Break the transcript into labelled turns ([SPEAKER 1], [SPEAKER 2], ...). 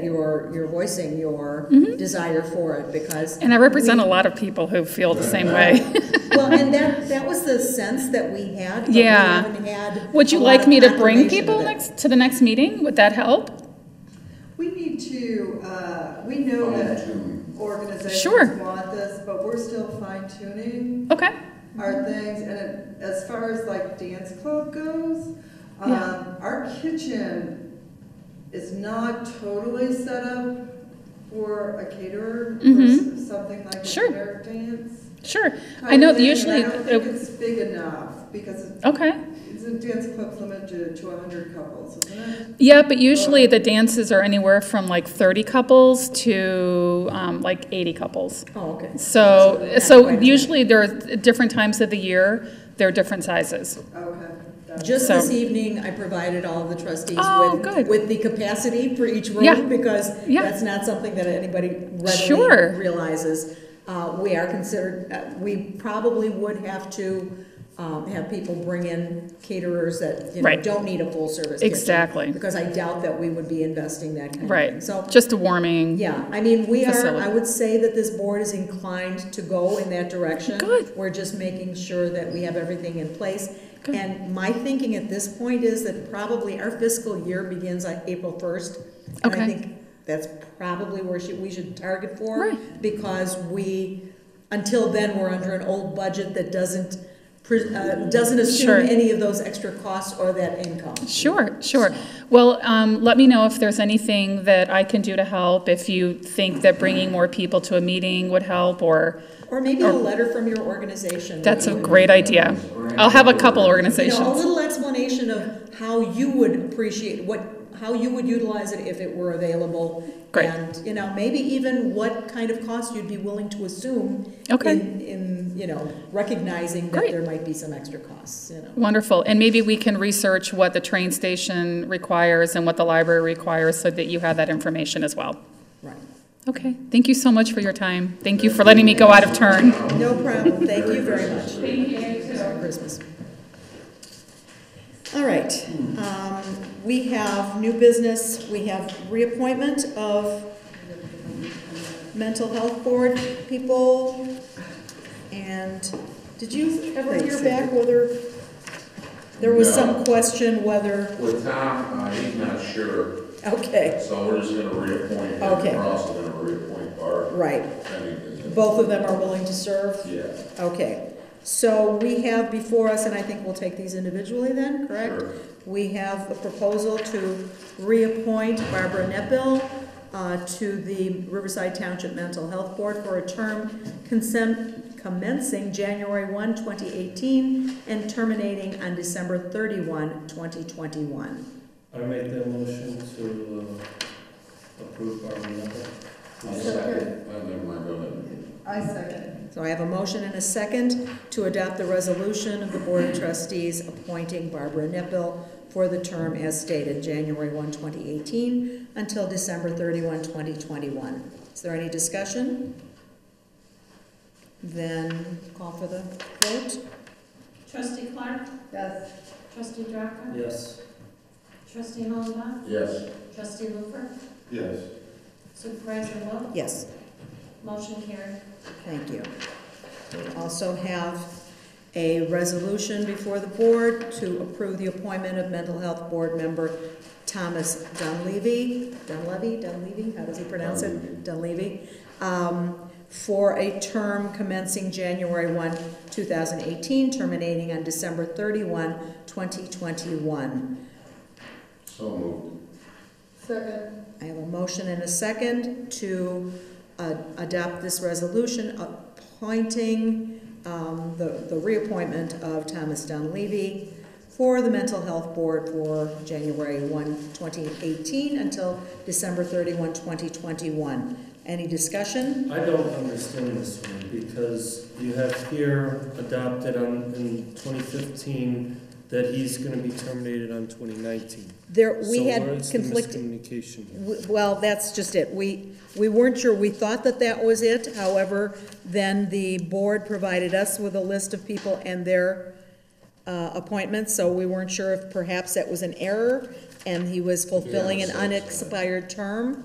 [SPEAKER 1] You're, you're voicing your
[SPEAKER 2] Mm-hmm.
[SPEAKER 1] desire for it because,
[SPEAKER 2] And I represent a lot of people who feel the same way.
[SPEAKER 1] well, and that, that was the sense that we had. but we
[SPEAKER 2] Yeah.
[SPEAKER 1] haven't had
[SPEAKER 2] Would
[SPEAKER 1] a
[SPEAKER 2] you
[SPEAKER 1] lot
[SPEAKER 2] like
[SPEAKER 1] of
[SPEAKER 2] me to bring
[SPEAKER 1] confirmation of
[SPEAKER 2] people
[SPEAKER 1] it.
[SPEAKER 2] next, to the next meeting? Would that help?
[SPEAKER 3] We need to, uh, we know that
[SPEAKER 2] Sure.
[SPEAKER 3] organizations want this, but we're still fine tuning
[SPEAKER 2] Okay,
[SPEAKER 3] our things. And it- as far as like dance club goes, um,
[SPEAKER 2] Yeah.
[SPEAKER 3] our kitchen is not totally set up for a caterer for
[SPEAKER 2] Mhm.
[SPEAKER 3] s- something like a
[SPEAKER 2] Sure.
[SPEAKER 3] generic dance.
[SPEAKER 2] sure. I
[SPEAKER 3] type
[SPEAKER 2] know
[SPEAKER 3] thing, and
[SPEAKER 2] usually,
[SPEAKER 3] I don't think
[SPEAKER 2] it-
[SPEAKER 3] it's big enough because it-
[SPEAKER 2] okay.
[SPEAKER 3] it's a dance club's limited to hundred couples, isn't it?
[SPEAKER 2] Yeah, but usually the dances are anywhere from like 30 couples to um, like 80 couples.
[SPEAKER 1] Oh, okay.
[SPEAKER 2] So,
[SPEAKER 1] not
[SPEAKER 2] so
[SPEAKER 1] quite as
[SPEAKER 2] usually there are different times of the year, there are different sizes.
[SPEAKER 3] Okay. that's-
[SPEAKER 1] Just
[SPEAKER 2] So-
[SPEAKER 1] this evening, I provided all the trustees
[SPEAKER 2] Oh,
[SPEAKER 1] with,
[SPEAKER 2] good.
[SPEAKER 1] with the capacity for each
[SPEAKER 2] Yeah.
[SPEAKER 1] room, because
[SPEAKER 2] Yeah.
[SPEAKER 1] that's not something that anybody
[SPEAKER 2] Sure.
[SPEAKER 1] readily realizes. Uh, we are considered, uh, we probably would have to, um, have people bring in caterers that, you know,
[SPEAKER 2] Right.
[SPEAKER 1] don't need a full-service kitchen.
[SPEAKER 2] Exactly.
[SPEAKER 1] Because I doubt that we would be investing that kind of thing.
[SPEAKER 2] Right,
[SPEAKER 1] So,
[SPEAKER 2] just a warming.
[SPEAKER 1] yeah, I mean, we are,
[SPEAKER 2] Facility.
[SPEAKER 1] I would say that this board is inclined to go in that direction.
[SPEAKER 2] Good.
[SPEAKER 1] We're just making sure that we have everything in place.
[SPEAKER 2] Good.
[SPEAKER 1] And my thinking at this point is that probably our fiscal year begins on April first. And I
[SPEAKER 2] Okay.
[SPEAKER 1] think that's probably where should, we should target for,
[SPEAKER 2] Right.
[SPEAKER 1] because we, until then, we're under an old budget that doesn't, pre- uh, doesn't
[SPEAKER 2] Sure.
[SPEAKER 1] assume any of those extra costs or that income.
[SPEAKER 2] Sure, sure. Well, um, let me know if there's anything that I can do to help, if you think that bringing more people to a meeting would help, or,
[SPEAKER 1] Or maybe a letter from your organization.
[SPEAKER 2] that's a
[SPEAKER 1] would-
[SPEAKER 2] great idea. I'll have a couple
[SPEAKER 1] You know, a
[SPEAKER 2] organizations.
[SPEAKER 1] little explanation of how you would appreciate, what, how you would utilize it if it were available.
[SPEAKER 2] Great.
[SPEAKER 1] And, you know, maybe even what kind of cost you'd be willing to assume.
[SPEAKER 2] Okay.
[SPEAKER 1] In, in, you know, recognizing that
[SPEAKER 2] Great.
[SPEAKER 1] there might be some extra costs, you know.
[SPEAKER 2] Wonderful, and maybe we can research what the train station requires and what the library requires, so that you have that information as well.
[SPEAKER 1] Right.
[SPEAKER 2] Okay, thank you so much for your time. Thank you for letting me go out of turn.
[SPEAKER 1] No problem, thank you very much. Thank you. Christmas. All right, um, we have new business, we have reappointment of mental health board people. And did you ever hear back whether, there was some
[SPEAKER 4] No.
[SPEAKER 1] question whether,
[SPEAKER 4] With Tom, uh, he's not sure,
[SPEAKER 1] okay,
[SPEAKER 4] so we're just gonna reappoint him.
[SPEAKER 1] Okay.
[SPEAKER 4] We're also gonna reappoint Barb.
[SPEAKER 1] right,
[SPEAKER 4] Right.
[SPEAKER 1] both of them are willing to serve?
[SPEAKER 4] Yeah,
[SPEAKER 1] Okay, so we have before us, and I think we'll take these individually then, correct?
[SPEAKER 4] Sure.
[SPEAKER 1] We have a proposal to reappoint Barbara Nepil uh, to the Riverside Township Mental Health Board for a term consent- commencing January 1, 2018, and terminating on December 31, 2021.
[SPEAKER 5] I make that motion to uh, approve Barbara Knuckle.
[SPEAKER 4] I'll second, I never mind, go ahead.
[SPEAKER 3] I second.
[SPEAKER 1] So I have a motion and a second to adopt the resolution of the Board of Trustees appointing Barbara Nipple for the term as stated, January 1, 2018, until December 31, 2021. Is there any discussion? Then call for the vote.
[SPEAKER 6] Trustee Clark,
[SPEAKER 3] Yes.
[SPEAKER 6] trustee Drapka,
[SPEAKER 5] Yes.
[SPEAKER 6] trustee Hollenbach,
[SPEAKER 4] Yes.
[SPEAKER 6] trustee Lufer,
[SPEAKER 4] Yes.
[SPEAKER 6] supervisor Wilt,
[SPEAKER 1] Yes,
[SPEAKER 6] motion carried.
[SPEAKER 1] thank you. We Also have a resolution before the board to approve the appointment of mental health board member Thomas Dunleavy, Dunleavy, Dunleavy, how does he pronounce it? Dunleavy, um, for a term commencing January 1, 2018, terminating on December 31, 2021.
[SPEAKER 4] So moved.
[SPEAKER 3] Second.
[SPEAKER 1] I have a motion and a second to uh, adopt this resolution appointing um, the the reappointment of Thomas Dunleavy for the Mental Health Board for January 1, 2018 until December 31, 2021. Any discussion?
[SPEAKER 5] I don't understand this one because you have here adopted on, in 2015 that he's going to be terminated on 2019.
[SPEAKER 1] There, we
[SPEAKER 5] So
[SPEAKER 1] had
[SPEAKER 5] where's the
[SPEAKER 1] conflicting.
[SPEAKER 5] Miscommunication here.
[SPEAKER 1] W- Well, that's just it. We, we weren't sure. We thought that that was it. However, then the board provided us with a list of people and their uh, appointments, so we weren't sure if perhaps that was an error and he was fulfilling an unexpired term.